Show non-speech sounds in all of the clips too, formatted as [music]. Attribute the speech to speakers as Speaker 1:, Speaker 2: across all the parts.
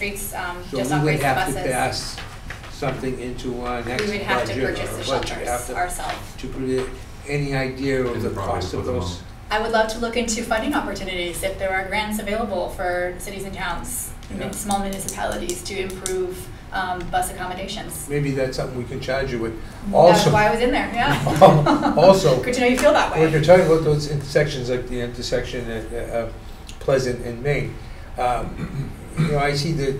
Speaker 1: streets, um,
Speaker 2: So
Speaker 1: just
Speaker 2: we
Speaker 1: on
Speaker 2: would
Speaker 1: race
Speaker 2: have
Speaker 1: buses.
Speaker 2: to pass something into our next budget.
Speaker 1: We would have to purchase
Speaker 2: or
Speaker 1: the
Speaker 2: budget.
Speaker 1: shelters
Speaker 2: Have to-
Speaker 1: ourselves.
Speaker 2: To put it, any idea of
Speaker 3: And
Speaker 2: the
Speaker 3: the property
Speaker 2: cost
Speaker 3: to
Speaker 2: of
Speaker 3: put them
Speaker 2: those?
Speaker 3: on.
Speaker 1: I would love to look into funding opportunities if there are grants available for cities and towns,
Speaker 2: Yeah.
Speaker 1: and small municipalities to improve um, bus accommodations.
Speaker 2: Maybe that's something we can charge you with.
Speaker 1: That's
Speaker 2: Also,
Speaker 1: why I was in there, yeah.
Speaker 2: [laughs] Also-
Speaker 1: Good to know you feel that
Speaker 2: when you're
Speaker 1: way.
Speaker 2: talking about those intersections, like the intersection at uh, Pleasant and Main, um, you know, I see the,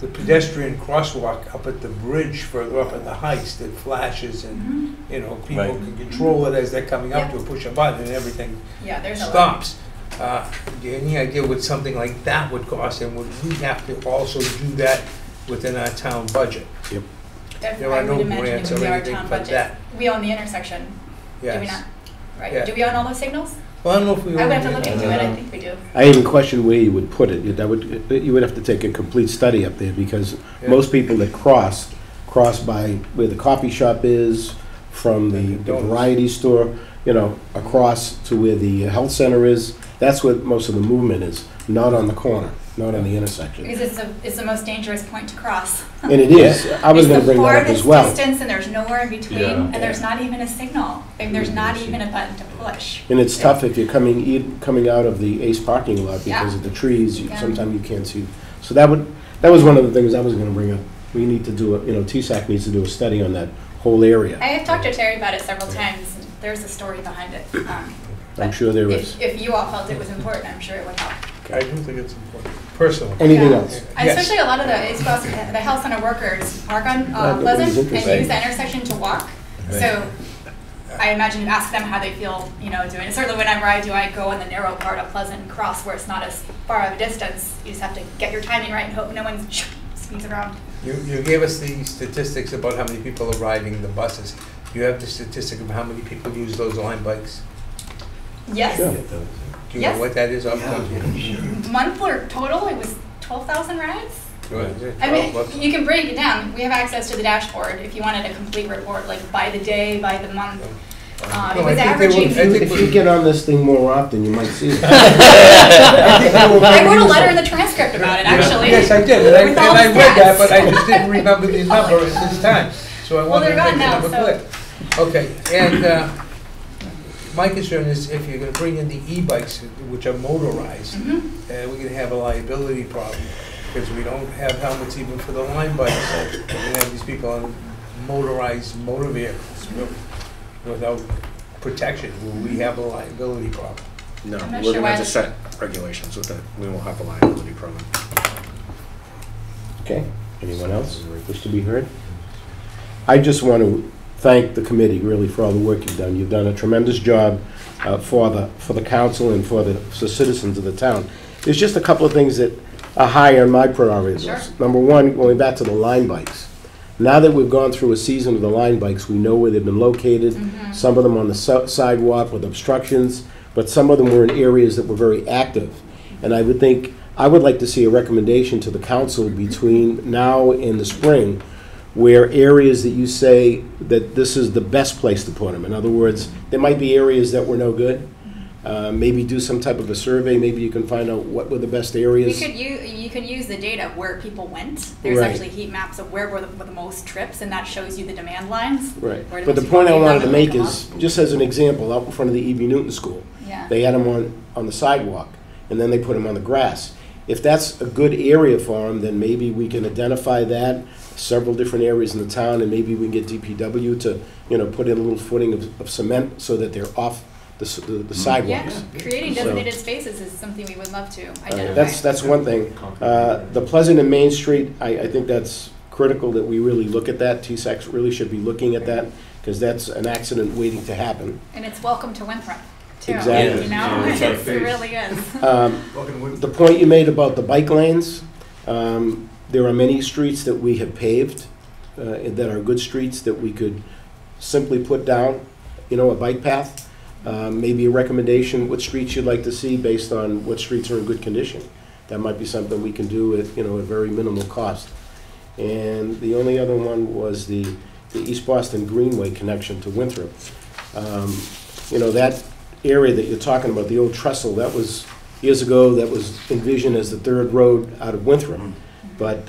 Speaker 2: the pedestrian crosswalk up at the bridge further up in the heights that flashes and,
Speaker 1: Mhm.
Speaker 2: you know, people
Speaker 4: Right.
Speaker 2: can control it as they're coming up to
Speaker 1: Yeah.
Speaker 2: push a button and everything
Speaker 1: Yeah, there's a lot.
Speaker 2: stops. Uh, do you have Any idea what something like that would cost, and would we have to also do that within our town budget?
Speaker 1: Def-
Speaker 2: There
Speaker 1: I
Speaker 2: are
Speaker 1: would
Speaker 2: no
Speaker 1: imagine it
Speaker 2: grants
Speaker 1: would
Speaker 2: or
Speaker 1: be our
Speaker 2: anything
Speaker 1: town
Speaker 2: like
Speaker 1: budget.
Speaker 2: that.
Speaker 1: We own the intersection, do we
Speaker 2: Yes.
Speaker 1: not?
Speaker 2: Yeah.
Speaker 1: Right, do we own all those signals?
Speaker 2: Well, I don't know if we.
Speaker 1: I would
Speaker 2: already
Speaker 1: have to look
Speaker 2: did
Speaker 1: into
Speaker 2: that.
Speaker 1: it, I
Speaker 4: Uh,
Speaker 1: think we do.
Speaker 4: I even question where you would put it. That would, you would have to take a complete study up there because
Speaker 2: Yeah.
Speaker 4: most people that cross, cross by where the coffee shop is, from the
Speaker 2: Dunkin' Donuts.
Speaker 4: variety store, you know, across to where the health center is. That's where most of the movement is, not on the corner, not on the intersection.
Speaker 1: Because it's the, it's the most dangerous point to cross.
Speaker 4: And it is, I was gonna bring that up
Speaker 1: It's
Speaker 4: as well.
Speaker 1: the farthest distance and there's nowhere in between,
Speaker 3: Yeah.
Speaker 1: and there's not even a signal, and there's not even a button to push.
Speaker 4: And it's tough if you're coming, in- coming out of the Ace parking lot because of the trees, you-
Speaker 1: Yeah.
Speaker 4: sometimes you can't see. So that would, that was one of the things I was gonna bring up. We need to do, a you know, TSAC needs to do a study on that whole
Speaker 1: I
Speaker 4: area.
Speaker 1: have talked to Terry about it several times, and there's a story behind it. um,
Speaker 4: I'm
Speaker 1: but
Speaker 4: sure there is.
Speaker 1: If, if you all felt it was important, I'm sure it would help.
Speaker 2: I do think it's important, personally.
Speaker 4: Anything
Speaker 1: Yeah.
Speaker 4: else?
Speaker 1: And
Speaker 2: Yes.
Speaker 1: Especially a lot of the, it's about the health center workers park on
Speaker 4: Glad that
Speaker 1: uh,
Speaker 4: was
Speaker 1: Pleasant and
Speaker 4: interesting.
Speaker 1: use the intersection to walk. So I imagine you ask them how they feel, you know, doing it. Certainly whenever I do, I go on the narrow part of Pleasant and Cross where it's not as far of a distance. You just have to get your timing right and hope no one [laughs] speeds around.
Speaker 2: You, you gave us the statistics about how many people are riding the buses. Do you have the statistic of how many people use those line bikes?
Speaker 4: Sure.
Speaker 1: Yes,
Speaker 2: Do you know
Speaker 1: Yes.
Speaker 2: what that is off the top of your head?
Speaker 1: monthly total, it was twelve thousand rides.
Speaker 2: Is it
Speaker 1: I mean,
Speaker 2: 12 bucks?
Speaker 1: you can break it down. We have access to the dashboard if you wanted a complete report, like by the day, by the month. Um,
Speaker 2: No,
Speaker 1: it
Speaker 2: I
Speaker 1: was
Speaker 2: think they were-
Speaker 1: averaging.
Speaker 2: I think
Speaker 4: If you get on this thing more often, you might see it.
Speaker 1: [laughs] I wrote a letter in the transcript about it, actually.
Speaker 2: Yes, I did, and I, and
Speaker 1: With all
Speaker 2: I
Speaker 1: the
Speaker 2: read that,
Speaker 1: stats.
Speaker 2: but
Speaker 1: [laughs]
Speaker 2: I just didn't remember these numbers at this time, so I
Speaker 1: Well,
Speaker 2: wanted to
Speaker 1: they're gone
Speaker 2: make the
Speaker 1: now,
Speaker 2: number
Speaker 1: so-
Speaker 2: clear. Okay, and, uh, my concern is if you're gonna bring in the e-bikes, which are motorized, uh,
Speaker 1: Mhm.
Speaker 2: we're gonna have a liability problem, because we don't have helmets even for the line bikes. We're gonna have these people on motorized motor vehicles wi- without protection, will we have a liability problem?
Speaker 5: No,
Speaker 1: I'm not
Speaker 5: we're
Speaker 1: sure
Speaker 5: gonna have
Speaker 1: why-
Speaker 5: to set regulations with it. We won't have a liability problem.
Speaker 4: Okay, anyone else wish to be heard? I just want to thank the committee really for all the work you've done. You've done a tremendous job uh, for the, for the council and for the for citizens of the town. There's just a couple of things that are high on my priority
Speaker 1: Sure.
Speaker 4: list. Number one, going back to the line bikes. Now that we've gone through a season of the line bikes, we know where they've been located. Some of them on the si- sidewalk with obstructions, but some of them were in areas that were very active. And I would think, I would like to see a recommendation to the council between now and the spring where areas that you say that this is the best place to put them. In other words, there might be areas that were no good. Uh, Maybe do some type of a survey, maybe you can find out what were the best
Speaker 1: You
Speaker 4: areas.
Speaker 1: could u- you could use the data of where people went. There's
Speaker 4: Right.
Speaker 1: actually heat maps of where were the, were the most trips, and that shows you the demand lines.
Speaker 4: Right,
Speaker 1: Where do
Speaker 4: but the
Speaker 1: most
Speaker 4: point I
Speaker 1: people
Speaker 4: wanted to
Speaker 1: live
Speaker 4: make
Speaker 1: and
Speaker 4: is, just as an example, out in front of the E.B. Newton School,
Speaker 1: Yeah.
Speaker 4: They had them on, on the sidewalk, and then they put them on the grass. If that's a good area for them, then maybe we can identify that, several different areas in the town, and maybe we can get DPW to, you know, put in a little footing of, of cement so that they're off the, s- the the
Speaker 1: yeah,
Speaker 4: sidewalks.
Speaker 1: creating
Speaker 4: So-
Speaker 1: designated spaces is something we would love to
Speaker 4: Uh,
Speaker 1: identify.
Speaker 4: That's, that's one thing. Uh, The Pleasant and Main Street, I, I think that's critical that we really look at that. T-Sex really should be looking at that, because that's an accident waiting to happen.
Speaker 1: and it's welcome to Winthrop too.
Speaker 4: Exactly.
Speaker 1: You know,
Speaker 3: Yeah, it's our
Speaker 1: It's- [laughs] it
Speaker 3: face.
Speaker 1: really is.
Speaker 4: Um, The point you made about the bike lanes, um, there are many streets that we have paved uh, that are good streets that we could simply put down, you know, a bike path. Uh, Maybe a recommendation, what streets you'd like to see based on what streets are in good condition. That might be something we can do at, you know, at very minimal cost. And the only other one was the, the East Boston Greenway connection to Winthrop. Um, You know, that area that you're talking about, the old trestle, that was, years ago, that was envisioned as the third road out of Winthrop. But